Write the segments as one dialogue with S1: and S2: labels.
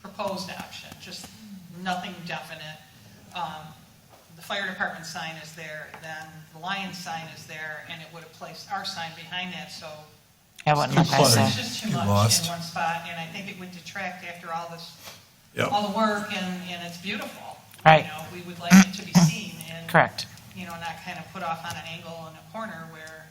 S1: proposed action, just nothing definite. Um, The fire department sign is there, then the Lions sign is there, and it would have placed our sign behind that, so
S2: I wouldn't look
S1: it's
S2: at
S1: it's
S2: that.
S1: just too
S3: You
S1: much
S3: lost.
S1: in one spot, and I think it would detract after all this,
S3: Yep.
S1: all the work, and, and it's beautiful.
S2: Right.
S1: You know, we would like it to be seen, and.
S2: Correct.
S1: You know, not kind of put off on an angle in a corner where,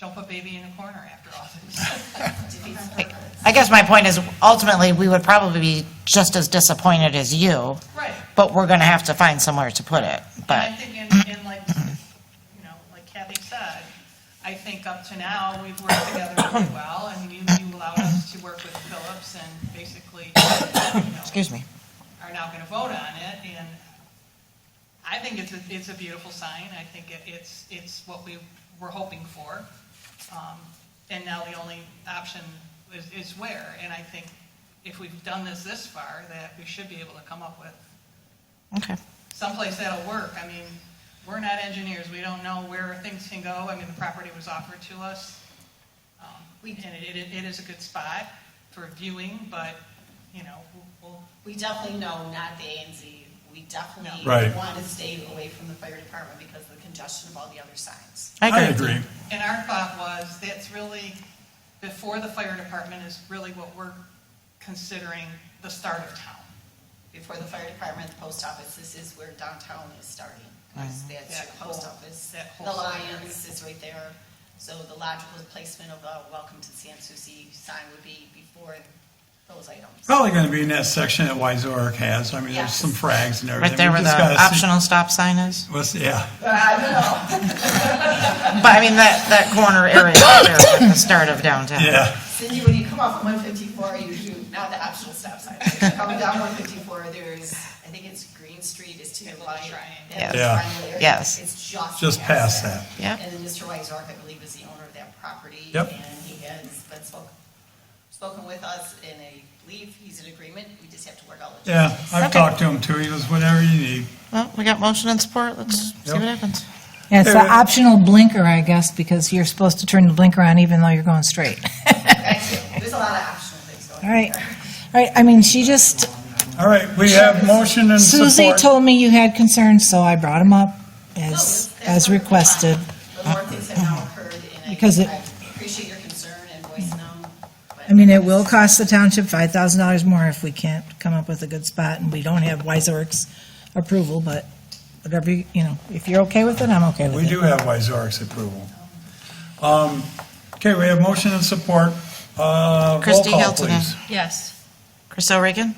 S1: don't put baby in a corner after all this.
S2: I guess my point is ultimately, we would probably be just as disappointed as you,
S1: Right.
S2: but we're going to have to find somewhere to put it.
S1: And I
S2: But,
S1: think, and, and like, you know, like Kathy said, I think up to now, we've worked together really well, and you, you allowed us to work with Phillips and basically, you know,
S2: excuse me.
S1: are now going to vote on it, and I think it's, a- it's a beautiful sign, I think it- it's, it's what we were hoping for. Um, And now the only option is, is where, and I think if we've done this this far, that we should be able to come up with
S2: Okay.
S1: someplace that'll work. I mean, we're not engineers, we don't know where things can go. I mean, the property was offered to us. Um, And it, it it is a good spot for viewing, but, you know, we'll, we'll-
S4: We definitely know not the A and Z. We definitely
S3: No. Right.
S4: want to stay away from the fire department because of the congestion of all the other signs.
S2: I agree.
S3: I
S2: with you.
S3: agree.
S1: and our thought was, that's really, before the fire department is really what we're considering the start of town.
S4: Before the fire department, the post office, this is where downtown is starting. 'cause That's
S1: That
S4: your post
S1: whole-
S4: office.
S1: that whole
S4: The
S1: side
S4: Lions is right there. So the logical placement of a welcome to San Souci sign would be before those items.
S3: Probably going to be in that section that Wyzork has. I mean, there's
S4: Yes.
S3: some frags and everything.
S2: Right there
S3: We
S2: where the
S3: just gotta see-
S2: optional stop sign is.
S3: What's, yeah,
S2: But I mean, that, that corner area right there at the start of downtown.
S3: yeah.
S4: Cindy, when you come off of one fifty-four, you do, not the optional stop sign, If you're coming down one fifty-four, there's, I think it's Green Street is to your right.
S1: Triangle.
S4: That
S3: Yeah.
S4: triangle area.
S2: Yes.
S4: It's just.
S3: Just past that.
S2: Yeah.
S4: And then Mr. Wyzark, I believe, is the owner of that property.
S3: Yep.
S4: And he has been spoken, spoken with us, and I believe he's in agreement, we just have to work out. the
S3: Yeah, I've
S2: Okay.
S3: talked to him too. He was whatever you need.
S2: Well, we got motion and support. Let's see what
S3: Mm-hmm. Yep.
S2: happens.
S5: Yeah, it's an
S3: Hey, Rick.
S5: optional blinker, I guess, because you're supposed to turn the blinker on even though you're going straight.
S4: logistics. There's a lot of optional things going on.
S5: All right. All right, I mean, she just,
S3: All right, we have motion and
S5: Susie
S3: support.
S5: told me you had concerns, so I brought them up
S3: Oh,
S4: No,
S5: as,
S4: that's
S5: as
S4: perfectly fine.
S5: requested.
S4: The more things have now occurred, and
S5: Because
S4: I
S5: it-
S4: I appreciate your concern and voicing them. but-
S5: I mean, it will cost the township five thousand dollars more if we can't come up with a good spot and we don't have Wiser's approval, but whatever, you you know, if you're okay with it, I'm okay with it.
S3: We do have Wyzork's approval. Um, Okay, we have motion and support. Uh, Roll
S2: Christie
S3: call,
S2: Hilton.
S3: please.
S6: Yes.
S2: Chris O'Regan,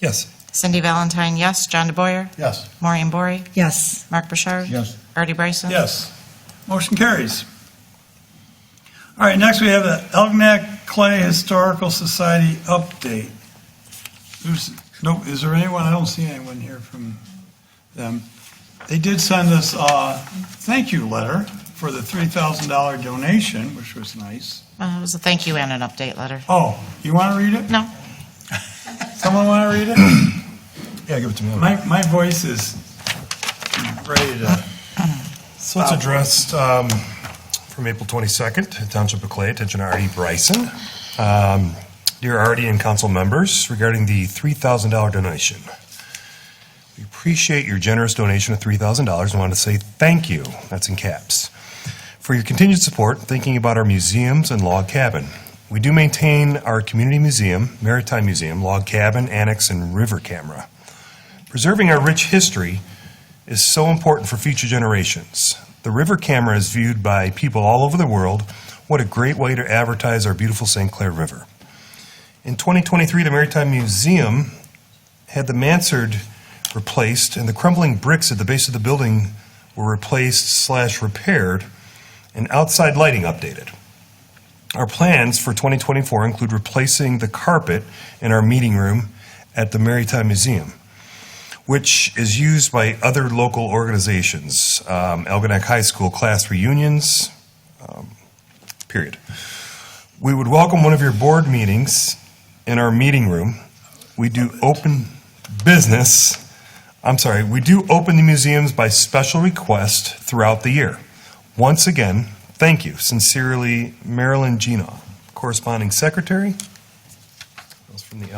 S3: Yes.
S2: Cindy Valentine, yes. John DeBoyer,
S3: Yes.
S2: Maureen Bory,
S5: Yes.
S2: Mark Bouchard.
S3: Yes.
S2: Artie Bryson.
S3: Yes. Motion carries. All right, next we have the Elginak Clay Historical Society update. There's, no, is there anyone? I don't see anyone here from them. They did send us a thank you letter for the $3,000 donation, which was nice.
S2: Uh, it was a thank you and an update letter.
S3: Oh, you want to read it?
S2: No,
S3: Someone want to read it?
S7: Yeah, give it to me.
S3: My, my voice is ready to,
S7: So it's addressed um, from April 22nd, Township of Clay, attention R.E. Bryson. Um, Dear R.D. and council members, regarding the $3,000 donation, we appreciate your generous donation of $3,000 and want to say thank you, that's in caps, for your continued support, thinking about our museums and log cabin. We do maintain our community museum, maritime museum, log cabin, annex, and river camera. Preserving our rich history is so important for future generations. The river camera is viewed by people all over the world. What a great way to advertise our beautiful St. Clair River. In 2023, the Maritime Museum had the mansard replaced, and the crumbling bricks at the base of the building were replaced slash repaired, and outside lighting updated. Our plans for 2024 include replacing the carpet in our meeting room at the Maritime Museum which is used by other local organizations, um, Algonac High School class reunions, um, period. We would welcome one of your board meetings in our meeting room. We do open business, I'm sorry, we do open the museums by special request throughout the year. Once again, thank you. Sincerely, Marilyn Gino, corresponding secretary. That was from the